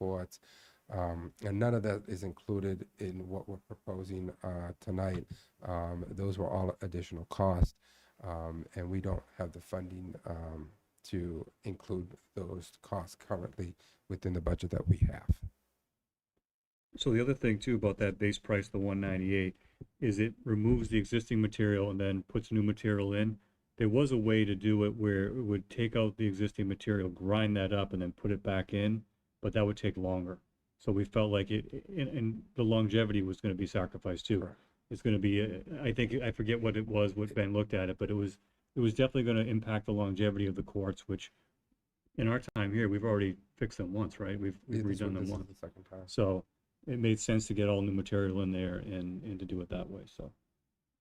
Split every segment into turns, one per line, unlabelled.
reports. Um, and none of that is included in what we're proposing, uh, tonight. Um, those were all additional costs. Um, and we don't have the funding, um, to include those costs currently within the budget that we have.
So the other thing too about that base price, the one ninety-eight, is it removes the existing material and then puts new material in. There was a way to do it where it would take out the existing material, grind that up and then put it back in, but that would take longer. So we felt like it, and, and the longevity was gonna be sacrificed too.
Correct.
It's gonna be, uh, I think, I forget what it was, what Ben looked at it, but it was, it was definitely gonna impact the longevity of the courts, which in our time here, we've already fixed them once, right? We've we've
This
redone
one-
them
this is
once.
the Second time.
So it made sense to get all new material in there and, and to do it that way. So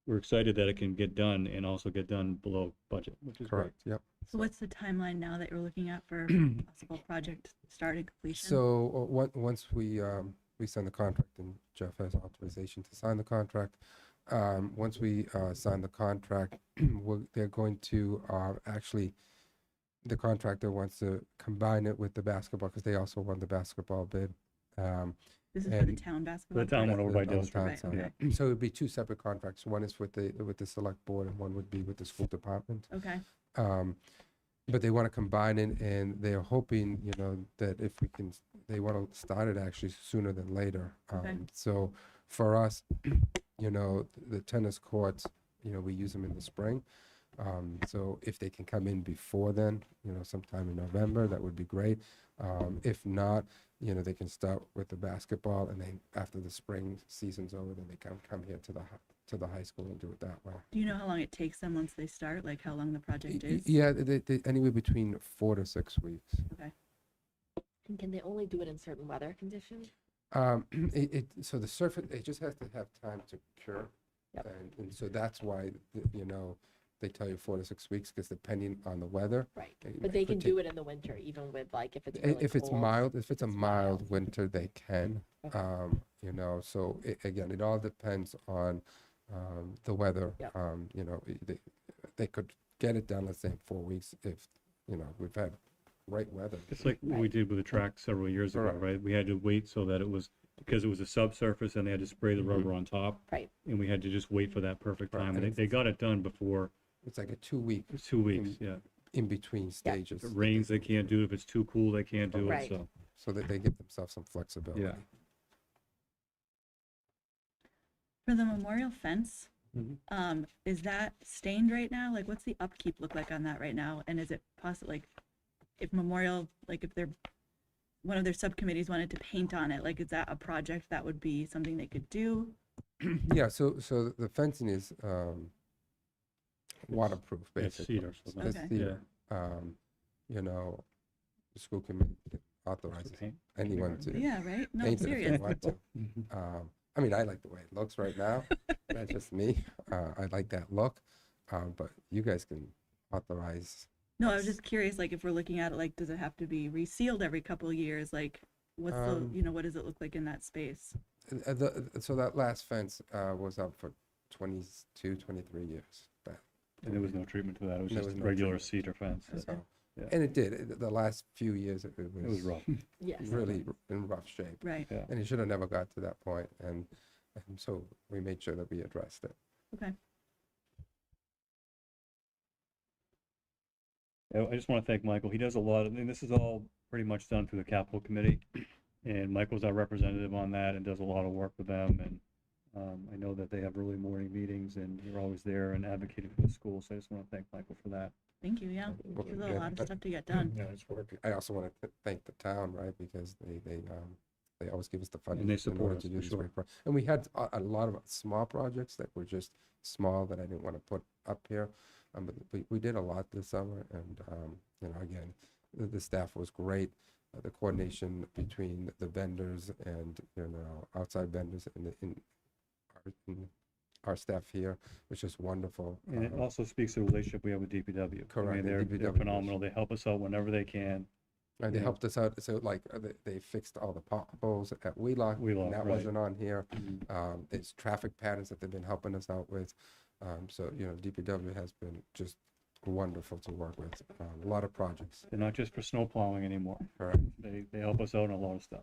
we're excited that it can get done and also get done below budget, which is great.
Correct, yep.
So what's the timeline now that you're looking at for possible project start and completion?
So, uh, on- once we, um, we sign the contract, and Jeff has authorization to sign the contract, um, once we, uh, sign the contract, we're, they're going to, uh, actually, the contractor wants to combine it with the basketball, because they also won the basketball bid. Um,
This is for the
and-
town basketball.
town
project?
one over by
the- on the
Dill's,
town
right,
side. So it'd be two separate contracts, one is with the, with the select board, and one would be with the school department.
Okay,
um, but they want to combine it, and they're hoping, you know, that if we can, they want to start it actually sooner than later.
Okay.
Um, so for us, you know, the tennis courts, you know, we use them in the spring. Um, so if they can come in before then, you know, sometime in November, that would be great. Um, if not, you know, they can start with the basketball, and then after the spring season's over, then they can come here to the hi- to the high school and do it that way.
do you know how long it takes them once they start, like how long the
Y-
project
y-
is?
Yeah, they, they, anywhere between four to six weeks.
And can they only do it in certain weather conditions?
Um, it, it, so the surface, it just has to have time to cure.
Yep.
And, and so that's why, th- you know, they tell you four to six weeks, because depending on the weather.
Right.
it-
But
it
they
could
can
take-
do it in the winter, even with like if it's
i-
really
If it's
cold.
mild, if it's a
it's
mild winter, they can,
Okay.
um, you know, so it, again, it all depends on, um, the weather.
Yep.
Um, you know, i- they, they could get it done, let's say, in four weeks if, you know, we've had great weather.
It's like what we
Right.
did with the track several years ago,
Correct.
right? We had to wait so that it was, because it was a subsurface and they had to spray the rubber on top.
Right.
And we had to just wait for that perfect
Mm-hmm. Right.
time. And they, they got it done before
It's like a two-week
two weeks, yeah.
in between stages.
If it rains, they can't do it. If it's too cool, they can't do it,
Right.
so.
so that they give themselves some flexibility.
For the memorial fence,
Mhm.
um, is that stained right now? Like, what's the upkeep look like on that right now? And is it possible, like, if memorial, like if they're, one of their subcommittees wanted to paint on it, like, is that a project that would be something they could do?
Yeah, so, so the fencing is um, waterproof,
It's
basically.
cedar, so
It's
that's,
Okay.
yeah.
cedar. Um, You know, the school committee authorizes
Paint.
anyone to
Yeah, right? No, I'm
paint it if they
serious.
want to. Um, I mean, I like the way it looks right now. That's just me. Uh, I like that look. Uh, But you guys can authorize,
No, I was just curious, like, if we're looking at it, like, does it have to be resealed every couple of years? Like, what's the,
Um,
you know, what does it look like in that space?
uh, the- so that last fence uh, was up for 22, 23 years. That-
And there was no treatment to that. It was
There
just
was no
regular
treatment.
cedar fence.
So,
Yeah.
and it did. It- The last few years, it it was.
It was rough.
Yes.
Really r- in rough shape.
Right.
Yeah.
And it should have never got to that point, And, and so we made sure that we addressed it.
I I just want to thank Michael. He does a lot, of- and this is all pretty much done through the capital committee. And Michael's our representative on that and does a lot of work with them. And um, I know that they have early morning meetings and you're always there and advocating for the school. So I just want to thank Michael for that.
Thank you. Yeah.
Well,
There's a
yeah,
lot of
but-
stuff to get done.
Yeah, it's work.
I also want to thank the town, right? Because they, they, um, they always give us the funding.
they
in
support
order
us,
to do
for
these
sure.
great pro- And we had a, a lot of small projects that were just small that I didn't want to put up here. Um, but we, we did a lot this summer and, um, you know, again, the, the staff was great. Uh, The coordination between the vendors and, you know, outside vendors and, the- and our- and our staff here was just wonderful.
And it
Um,
also speaks to the relationship we have with DPW. I
Correct,
mean,
and
they're, they're
DPW is-
phenomenal. They help us out whenever they can.
And they
Yeah.
helped us out, so like, uh, they, they fixed all the potholes at Wheelock. and
Wheelock,
That
right.
wasn't on here. Um, it's traffic patterns that they've been helping us out with. Um, so, you know, DPW has been just wonderful to work with, um, a lot of projects.
They're not just for snow plowing anymore.
Correct.
They, they help us out in a lot of stuff.